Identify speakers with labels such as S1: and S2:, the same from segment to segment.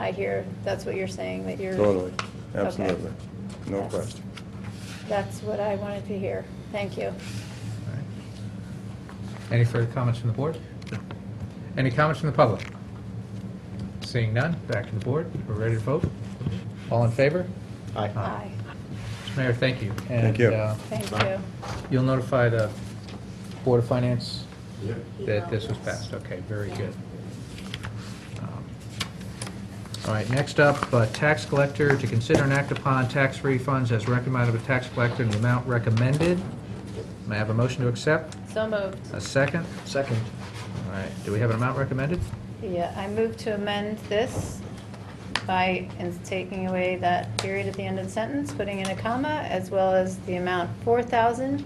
S1: I hear, that's what you're saying, that you're.
S2: Totally,
S1: Okay.
S2: absolutely, no
S1: That's-
S2: question.
S1: That's what I wanted to hear. Thank you.
S3: All right. Any further comments from the board? Any comments from the public? Seeing none, back to the board. We're ready to vote. All in favor?
S1: Aye.
S3: Mr. Mayor, thank you.
S2: Thank you.
S3: And uh,
S1: Thank you.
S3: you'll notify the Board of Finance
S4: Yeah.
S3: that this was passed. Okay, very good. Um, All right, next up, uh, tax collector, to consider and act upon tax refunds as recommended by tax collector in the amount recommended. May I have a motion to accept?
S1: So moved.
S3: A second?
S4: Second.
S3: All right, do we have an amount recommended?
S1: Yeah, I move to amend this by ins- taking away that period at the end of the sentence, putting in a comma, as well as the amount four thousand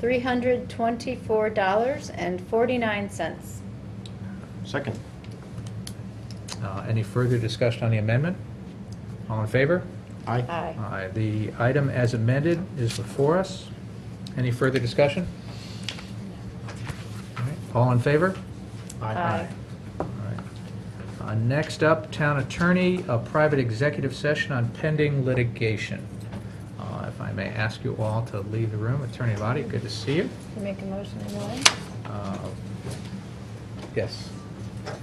S1: three hundred twenty-four dollars and forty-nine cents.
S4: Second.
S3: Uh, Any further discussion on the amendment? All in favor?
S4: Aye.
S1: Aye.
S3: Aye. The item as amended is before us. Any further discussion? All right, All in favor?
S1: Aye.
S3: All right. Uh, Next up, town attorney, a private executive session on pending litigation. Uh, If I may ask you all to leave the room, Attorney Lottie, good to see you.
S1: You make a motion, anyone?
S3: Uh, Yes,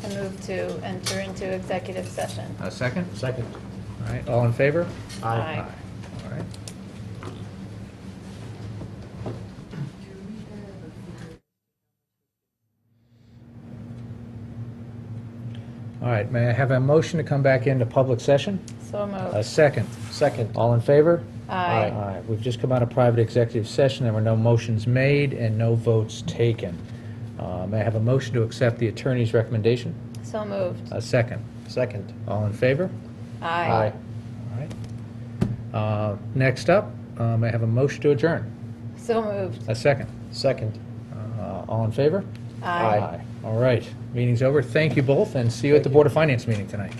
S1: I move to enter into executive session.
S3: a second?
S4: Second.
S3: All right, all in favor?
S1: Aye.
S3: All right. All right, may I have a motion to come back into public session?
S1: So
S3: A
S1: moved.
S3: second.
S4: Second.
S3: All in favor?
S1: Aye.
S3: We've just come out of private executive session. There were no motions made and no votes taken. Uh, May I have a motion to accept the attorney's recommendation?
S1: So moved.
S3: A second.
S4: Second.
S3: All in favor?
S1: Aye.
S3: All right. Uh, Next up, um, I have a motion to adjourn.
S1: So moved.
S3: A second.
S4: Second.
S3: Uh, All in favor?
S1: Aye.
S3: All right. Meeting's over. Thank you both, and see you at the Board of Finance meeting tonight.